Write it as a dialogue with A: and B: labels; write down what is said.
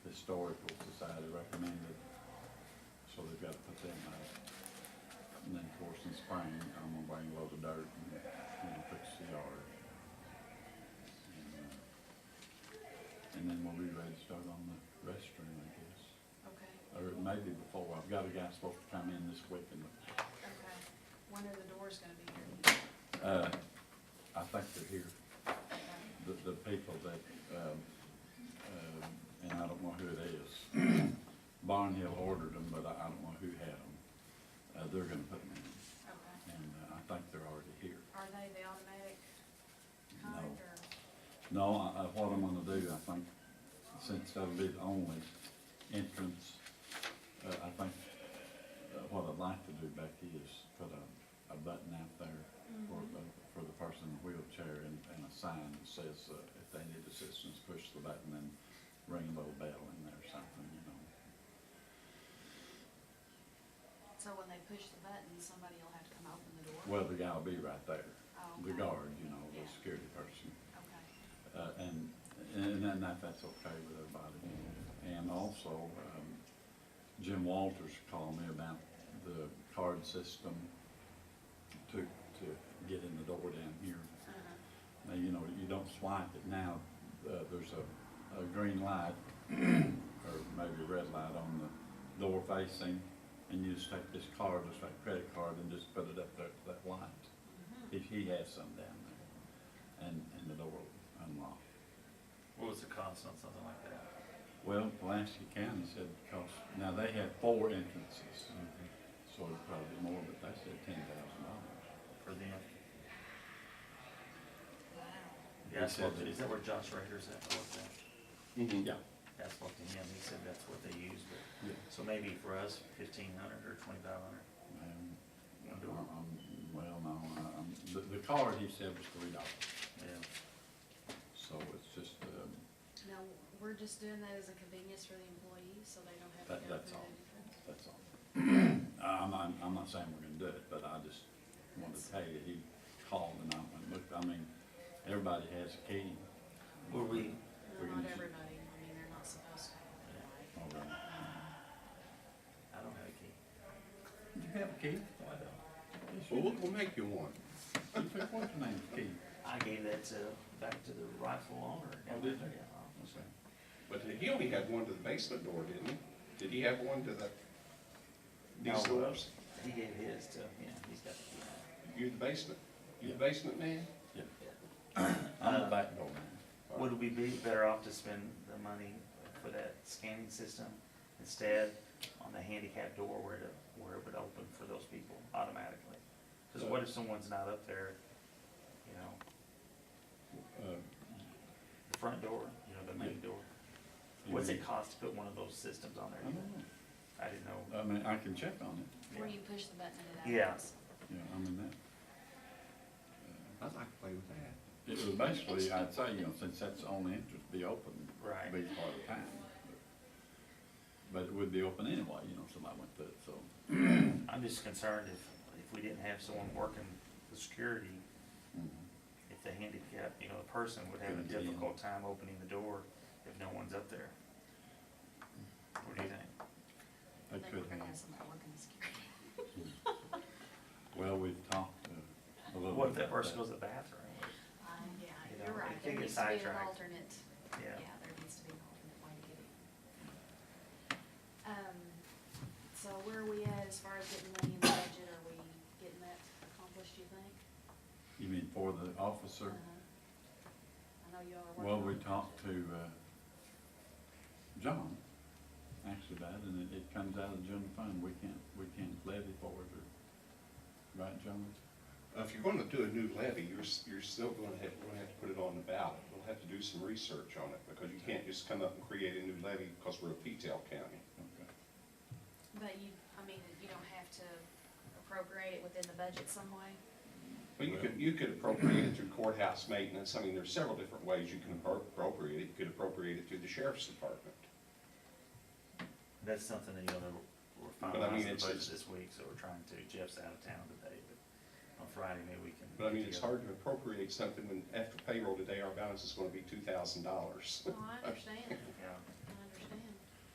A: we've got to put them out. And then, of course, in spring, I'm gonna bring loads of dirt and, and fix the yard. And, uh, And then we'll be ready to start on the restroom, I guess.
B: Okay,
A: Or maybe before, I've got a guy supposed to come in this week and,
B: okay. When are the doors gonna be here?
A: uh, I think they're here.
B: Okay.
A: the, the people that, um, um, and I don't know who it is. Barnhill ordered them, but I, I don't know who had them. Uh, they're gonna put them in,
B: Okay.
A: and uh, I think they're already here.
B: Are they the automatic
A: No.
B: kind or?
A: No, I, I, what I'm gonna do, I think, since that'll be the only entrance, uh, I think, uh, what I'd like to do, Becky, is put a, a button out there for, the- for the person in the wheelchair and, and a sign that says, uh, if they need assistance, push the button and ring a little bell in there or something, you know.
B: So when they push the button, somebody will have to come open the door?
A: Well, the guy will be right there,
B: Oh,
A: the
B: okay.
A: guard, you know, the
B: Yeah.
A: security person.
B: Okay,
A: Uh, and, and then that, that's okay with everybody. And also, um, Jim Walters called me about the card system to, to get in the door down here.
B: uh-huh,
A: Now, you know, you don't swipe it now, uh, there's a, a green light or maybe a red light on the door facing. And you just take this card, just like credit card, and just put it up there to that light
B: mhm.
A: if he has some down there, and, and the door will unlock.
C: What was the cost on something like that?
A: Well, Pulaski County said it cost, now they had four entrances, so it'd probably be more, but they said ten thousand dollars.
C: For the,
B: Wow.
C: the asphalt, is that where Josh Rader's at, or what's that?
D: Mm-hmm.
A: Yeah,
C: Asphalt to him, he said that's what they use, but,
A: yeah.
C: so maybe for us, fifteen hundred or twenty-five hundred.
A: Um,
C: One
A: I'm-
C: door.
A: I'm- well, no, um, the, the card he said was three dollars,
C: Yeah,
A: so it's just, um,
B: Now, we're just doing that as a convenience for the employees, so they don't have to
A: That-
B: go
A: that's
B: through
A: all.
B: anything?
A: that's all. Uh, I'm, I'm, I'm not saying we're gonna do it, but I just wanted to tell you, he called and I went, look, I mean, everybody has a key.
C: were we,
A: We can
B: No, not
A: just-
B: everybody, I mean, they're not supposed to have it, right?
A: All right.
C: I don't have a key.
A: You have a key?
C: No, I don't.
D: Well, we'll, we'll make you one.
A: What's her name, Keith?
C: I gave that to, back to the rifle owner.
A: Oh, did you?
C: Yeah.
D: But he only had one to the basement door, didn't he? Did he have one to the,
C: No,
D: these
C: uh,
D: doors?
C: He gave his to, yeah, he's got the key.
D: You the basement? You the
A: Yeah.
D: basement man?
A: I'm the
C: Uh,
A: back door man.
C: Would we be better off to spend the money for that scanning system instead on the handicap door where it, where it would open for those people automatically? Because what if someone's not up there, you know,
A: Uh,
C: the front door, you know, the main door?
A: you
C: What's
A: mean-
C: it cost to put one of those systems on
A: I
C: there?
A: don't know.
C: I didn't know.
A: I mean, I can check on it,
B: Where you push the button and it
C: Yeah.
B: opens.
A: you know, I mean, that.
D: I'd like to play with that.
A: It was basically, I'd say, you know, since that's the only entrance, be open,
C: Right.
A: be part of time. But it would be open anyway, you know, somebody went through it, so.
C: I'm just concerned if, if we didn't have someone working the security, if the handicap, you know, the person would have a
A: Couldn't get in.
C: difficult time opening the door if no one's up there. What do you think?
A: They
B: They
A: could
B: were gonna
A: have,
B: have somebody working the security.
A: well, we've talked uh, a little. bit
C: What if that
A: about
C: person goes to the bathroom?
B: Uh, yeah,
C: You know,
B: you're right,
C: they
B: there
C: get
B: needs to be an
C: sidetracked.
B: alternate, yeah,
C: Yeah,
B: there needs to be an alternate way to get it. Um, so where are we at as far as getting money in the budget, are we getting that accomplished, you think?
A: You mean for the officer?
B: Uh-huh. I know y'all are
A: Well, we
B: working. on it.
A: talked to, uh, John, actually about it, and it, it comes out of the general fund, we can't, we can't levy for it, or, right, John?
D: Uh, If you're gonna do a new levy, you're, s- you're still gonna have, we're gonna have to put it on the ballot. We'll have to do some research on it, because you can't just come up and create a new levy, because we're a P-tail county.
A: Okay.
B: But you, I mean, you don't have to appropriate it within the budget some way?
D: But
A: Well-
D: you could, you could appropriate it through courthouse maintenance, I mean, there's several different ways you can appro- appropriate it. You could appropriate it through the sheriff's department.
C: that's something that, you know, we're
D: But I mean,
C: finalizing
D: it's-
C: the budget
D: it's-
C: this week, so we're trying to, Jeff's out of town today, but on Friday, maybe we can.
D: But I
C: get
D: mean, it's
C: together.
D: hard to appropriate something when, after payroll today, our balance is gonna be two thousand dollars.
B: Well, I understand.
C: Yeah,